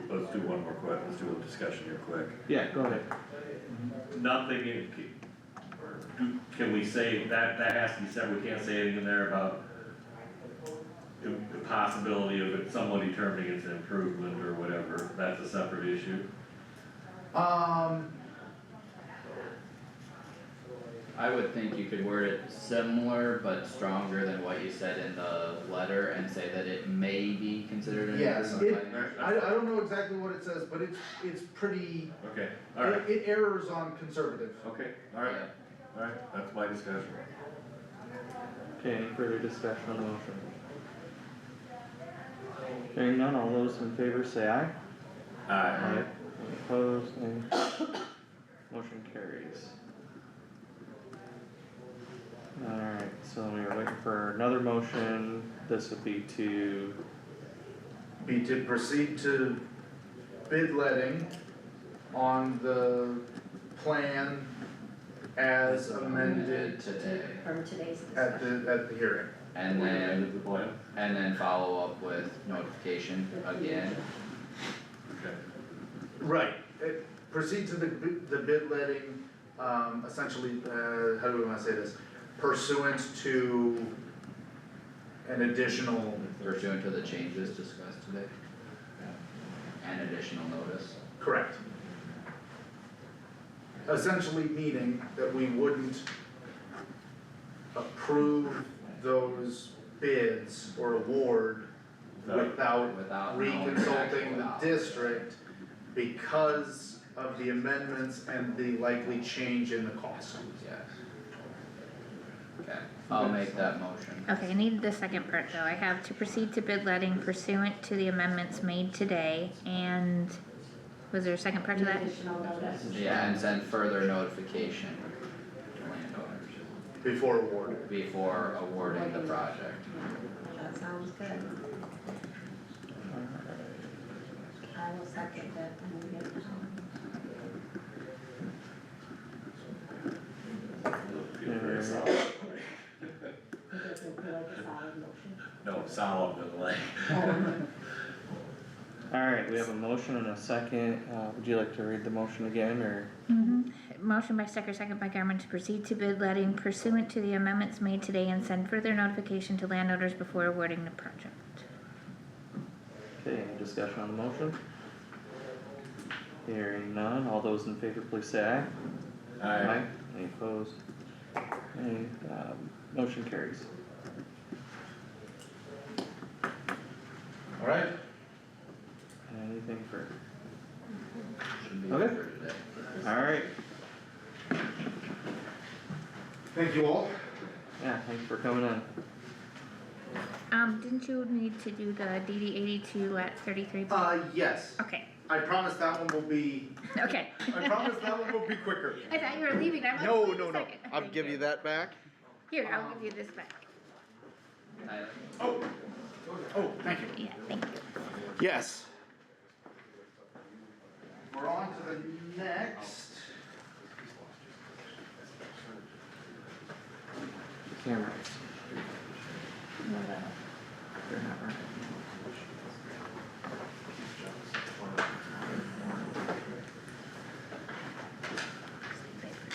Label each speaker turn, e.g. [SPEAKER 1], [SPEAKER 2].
[SPEAKER 1] let's do one more quick, let's do a discussion here quick.
[SPEAKER 2] Yeah, go ahead.
[SPEAKER 1] Nothing in, do- can we say, that, that has to be said, we can't say anything there about the, the possibility of it someone determining it's an improvement or whatever, that's a separate issue.
[SPEAKER 3] Um,
[SPEAKER 4] I would think you could word it similar but stronger than what you said in the letter and say that it may be considered an
[SPEAKER 3] Yes,
[SPEAKER 4] improvement.
[SPEAKER 3] it-
[SPEAKER 4] plan.
[SPEAKER 3] I, I don't know exactly what it says, but it's, it's pretty,
[SPEAKER 1] Okay, alright,
[SPEAKER 3] it, it errors on conservative.
[SPEAKER 1] okay, alright,
[SPEAKER 4] Yeah.
[SPEAKER 1] alright, that's my discussion.
[SPEAKER 2] Okay, any further discussion on the motion? Hearing none, all those in favor say aye.
[SPEAKER 1] Alright,
[SPEAKER 2] Any Opposed, Any- Motion carries. Alright, so we are waiting for another motion, this would be to,
[SPEAKER 3] Be to proceed to bid letting on the plan as amended
[SPEAKER 4] today.
[SPEAKER 5] From today's
[SPEAKER 3] at
[SPEAKER 5] discussion.
[SPEAKER 3] the, at the hearing.
[SPEAKER 4] And then,
[SPEAKER 1] the plan.
[SPEAKER 4] and then follow up with notification again.
[SPEAKER 1] Okay,
[SPEAKER 3] Right, it, proceed to the, bi- the bid letting, um, essentially, uh, how do we wanna say this? Pursuant to an additional,
[SPEAKER 4] Pursuant to the changes discussed today. And additional notice.
[SPEAKER 3] correct. Essentially meaning that we wouldn't approve those bids or award without
[SPEAKER 4] Without knowing exactly
[SPEAKER 3] reconsulting the
[SPEAKER 4] what-
[SPEAKER 3] district because of the amendments and the likely change in the cost.
[SPEAKER 4] Yes. Okay, I'll make that motion.
[SPEAKER 6] Okay, I needed the second part though. I have to proceed to bid letting pursuant to the amendments made today and was there a second part to that?
[SPEAKER 5] Additional notice.
[SPEAKER 4] Yeah, and send further notification to landowners
[SPEAKER 3] Before award.
[SPEAKER 4] before awarding the project.
[SPEAKER 5] That sounds good. I will second that when we get to
[SPEAKER 1] feel very
[SPEAKER 2] Yeah.
[SPEAKER 1] solid.
[SPEAKER 5] it. doesn't feel like a solid motion.
[SPEAKER 1] No, solid, but like,
[SPEAKER 2] alright, we have a motion and a second, uh, would you like to read the motion again, or?
[SPEAKER 6] Mhm. Motion by Stecker, second by Garmin to proceed to bid letting pursuant to the amendments made today and send further notification to landowners before awarding the project.
[SPEAKER 2] Okay, any discussion on the motion? Hearing none, all those in favor please say aye.
[SPEAKER 1] alright,
[SPEAKER 2] Any opposed? Any, um, motion carries.
[SPEAKER 3] Alright.
[SPEAKER 2] Anything for,
[SPEAKER 4] Should be
[SPEAKER 2] Okay.
[SPEAKER 4] for today.
[SPEAKER 2] alright,
[SPEAKER 3] Thank you all.
[SPEAKER 2] yeah, thanks for coming in.
[SPEAKER 6] Um, didn't you need to do the DD eighty-two at thirty-three?
[SPEAKER 3] Uh, yes,
[SPEAKER 6] Okay,
[SPEAKER 3] I promise that one will be,
[SPEAKER 6] okay.
[SPEAKER 3] I promise that one will be quicker.
[SPEAKER 6] I thought you were leaving. I'm like, wait a second. Thank
[SPEAKER 3] that back.
[SPEAKER 6] Here, I'll give you this back.
[SPEAKER 4] Tyler?
[SPEAKER 3] Oh, oh, thank you.
[SPEAKER 6] Yeah, thank you.
[SPEAKER 3] Yes. We're on to the next.
[SPEAKER 2] Cameras,
[SPEAKER 5] No, no.
[SPEAKER 2] they're not right.